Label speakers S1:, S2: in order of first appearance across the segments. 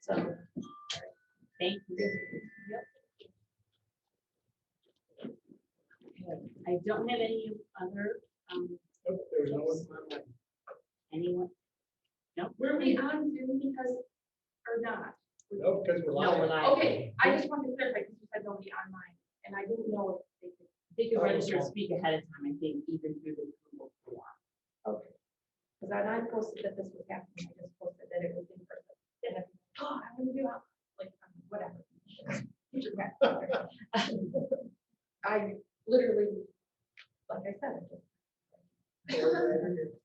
S1: So, thank you. Yep. I don't have any other, um,
S2: There's no one.
S1: anyone,
S3: Were we on Zoom because, or not?
S2: No, because we're
S1: no, we're
S2: live.
S1: live.
S3: Okay, I just wanted to clarify, because you said nobody online, and I didn't know if they could.
S1: They could
S2: Oh,
S1: register to
S2: okay.
S1: speak ahead of time, I think, even through the Google form.
S3: Okay. Because I I posted that this was happening, I just posted that it was in person. And then, oh, I'm gonna do it, like, um, whatever. It just happened. I literally, like I said. I just-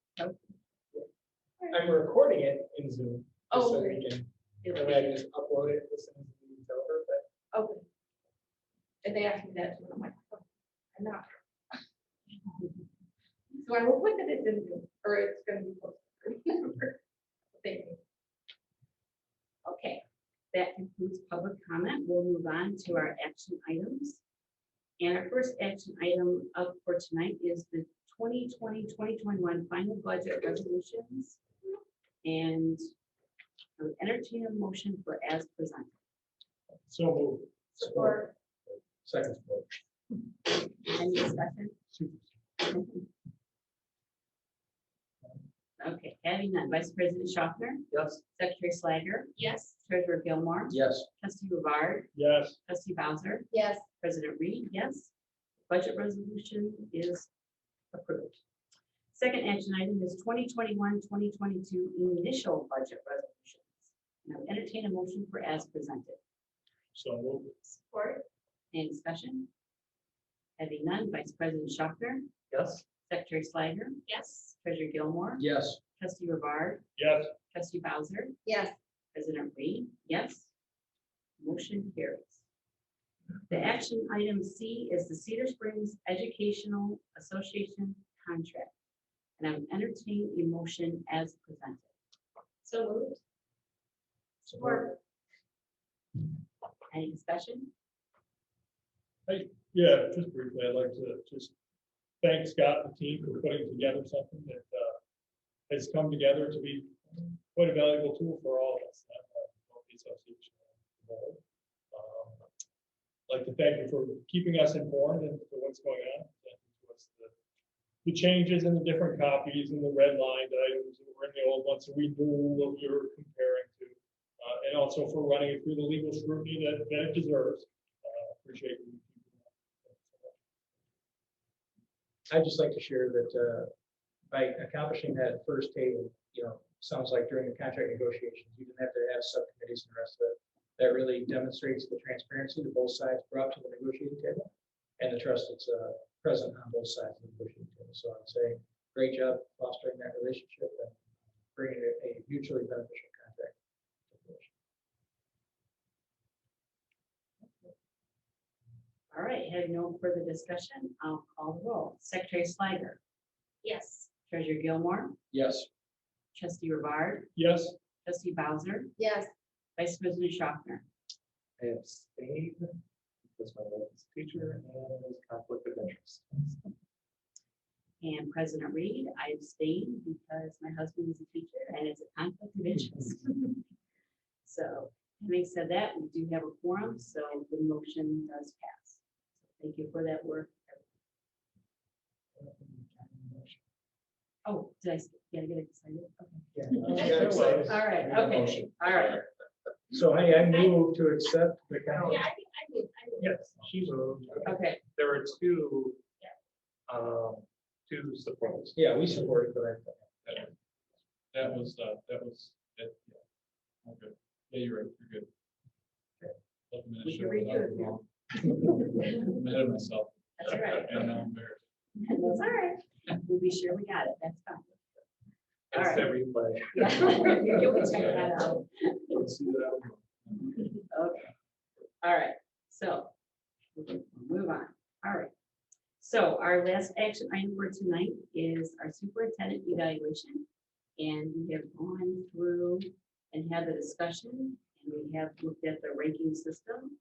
S2: I'm recording it in Zoom. just so
S3: Oh,
S2: we can-
S1: It
S2: that
S1: would
S2: way I
S1: be-
S2: can just upload it, listen to the video over, but
S3: Okay. And they asked me that, and I'm like, oh, I'm not. So I will put that it's in, Zoom, or it's gonna be posted. Thank you.
S1: Okay, that concludes public comment. We'll move on to our action items. And our first action item up for tonight is the 2020, 2021 final budget resolutions. And I would entertain a motion for as presented.
S2: so moved.
S3: Support.
S2: Second. support.
S1: Any discussion? Okay, having none. Vice President Schaffner,
S2: Yes.
S1: Secretary Slager,
S3: Yes.
S1: Treasurer Gilmore,
S2: Yes.
S1: Trustee Rivard,
S2: Yes.
S1: Trustee Bowser,
S3: Yes.
S1: President Reed, yes. Budget resolution is approved. Second action item is 2021-2022 initial budget resolutions. Now entertain a motion for as presented.
S2: So moved.
S3: Support.
S1: Any discussion? Having none, Vice President Schopner,
S2: Yes.
S1: Secretary Slager,
S3: Yes.
S1: Treasurer Gilmore,
S2: Yes.
S1: Trustee Rivard,
S2: Yes.
S1: Trustee Bowser,
S3: Yes.
S1: President Reed, yes. Motion carries. The action item C is the Cedar Springs Educational Association contract. And I'm entertaining a motion as presented.
S3: So moved. Support.
S1: Any discussion?
S4: Yeah, just briefly, I'd like to just thank Scott and the team for putting together something that uh, has come together to be quite a valuable tool for all of us. uh, both the association and the board. Um, I'd Like to thank you for keeping us informed and for what's going on. and what's the- The changes in the different copies and the red line items that were in the old ones, so we knew what we were comparing to. uh, And also for running it through the legal scrutiny that that it deserves. Uh, Appreciate you keeping that.
S2: I'd just like to share that uh, by accomplishing that first table, you know, sounds like during the contract negotiations, you didn't have to have subcommittees and the rest of it. That really demonstrates the transparency that both sides brought to the negotiating table and the trust that's uh, present on both sides of the negotiating table. So I'd say, great job fostering that relationship and bringing a- a mutually beneficial contract. to fruition.
S1: All right, having no further discussion, I'll call the roll. Secretary Slager,
S3: Yes.
S1: Treasurer Gilmore,
S2: Yes.
S1: Trustee Rivard,
S4: Yes,
S1: Trustee Bowser,
S3: Yes.
S1: Vice President Schaffner.
S2: I abstained because my wife is a teacher and there's conflict of interest.
S1: And President Reed, I abstain because my husband is a teacher and it's a conflict of interest. So having said that, we do have a quorum, so the motion does pass. Thank you for that work. Oh, did I, s- did I get excited? Okay.
S2: Yeah.
S4: Uh, Yeah, so-
S1: All right, okay, all right.
S2: So hey, I move to accept the count.
S3: Yeah, I think I did. I did.
S4: yes, she moved.
S1: Okay,
S4: There were two, um, two supports.
S2: Yeah, we support it, but I.
S4: That was, uh, that was, it, yeah. Okay. Yeah, you're right, you're good. Let me
S1: we can
S4: show
S1: redo it
S4: without-
S1: now.
S4: I'm ahead of myself.
S1: That's all right.
S4: And now I'm embarrassed.
S1: That's all right. We'll be sure we got it. That's fine. All
S4: That's
S1: right.
S4: every play.
S1: Yeah, You'll check that out.
S4: Let's see that one.
S1: Okay, all right, so we can move on, all right. So our last action item for tonight is our superintendent evaluation. And we have gone through and had the discussion, and we have looked at the ranking system.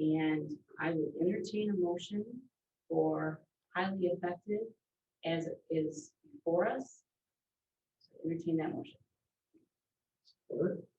S1: And I would entertain a motion for highly effective as it is for us. So Entertain that motion.
S2: support.